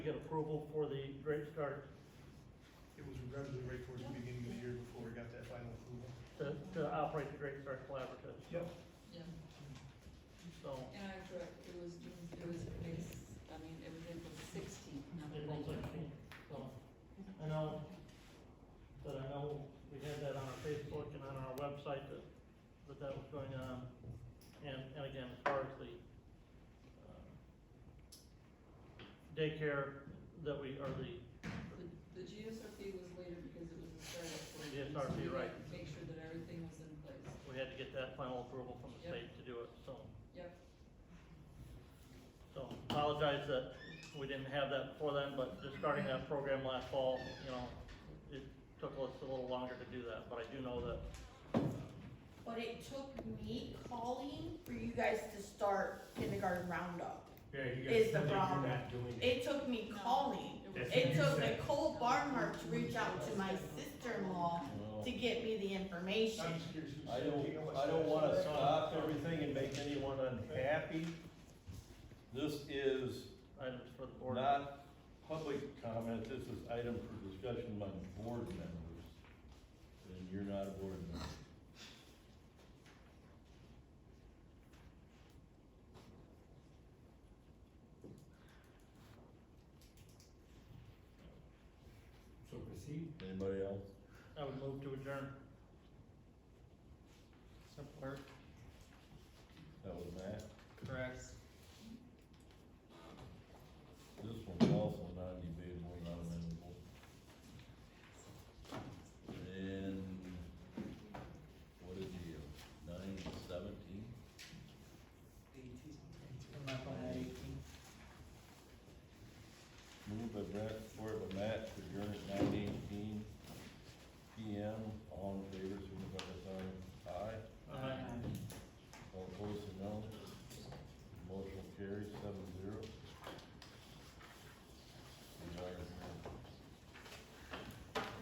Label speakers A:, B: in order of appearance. A: approval for the Great Start.
B: It was relatively right towards the beginning of the year before we got that final approval.
A: to, to operate the Great Start Collaborative.
B: Yep.
C: Yeah,
A: So,
C: and I correct, it was, June- it was, May s- I mean, it was April sixteenth, not the
A: April sixteenth, so, I know, that I know we had that on our Facebook and on our website that, that that was going on. And, and again, as far as the, um, daycare that we, or the,
C: The GSRP was later because it was a startup. for it,
A: Yes,
C: so
A: RP,
C: we had
A: right.
C: to Make sure that everything was in place.
A: we had to get that final approval from the
C: Yep.
A: state to do it, so.
C: Yep,
A: So apologize that we didn't have that before then, but just starting that program last fall, you know, it took us a little longer to do that, but I do know that,
D: But it took me calling for you guys to start kindergarten roundup.
E: Yeah, you guys,
D: Is the
E: feel like you're
D: problem.
E: not doing it.
D: It took me calling.
C: it
E: That's
C: was-
D: It
E: what you
D: took
E: said.
D: Nicole Barnhart to reach out to my sister-in-law to get me the information.
B: I'm just curious. who's
F: I don't,
B: taking how much
F: I don't
B: time.
F: wanna stop everything and make anyone unhappy. This is
A: items for the board.
F: not public comment, this is item for discussion among board members. And you're not a board member.
E: So proceed.
F: Anybody else?
A: I would move to adjourn.
G: Support,
F: That was Matt.
G: correct.
F: This one's also non-debatable, non-amendable. And what is the, nine seventeen?
G: I'm not going at eighteen.
F: Moved by Brett, supported by Matt, to adjourn at nine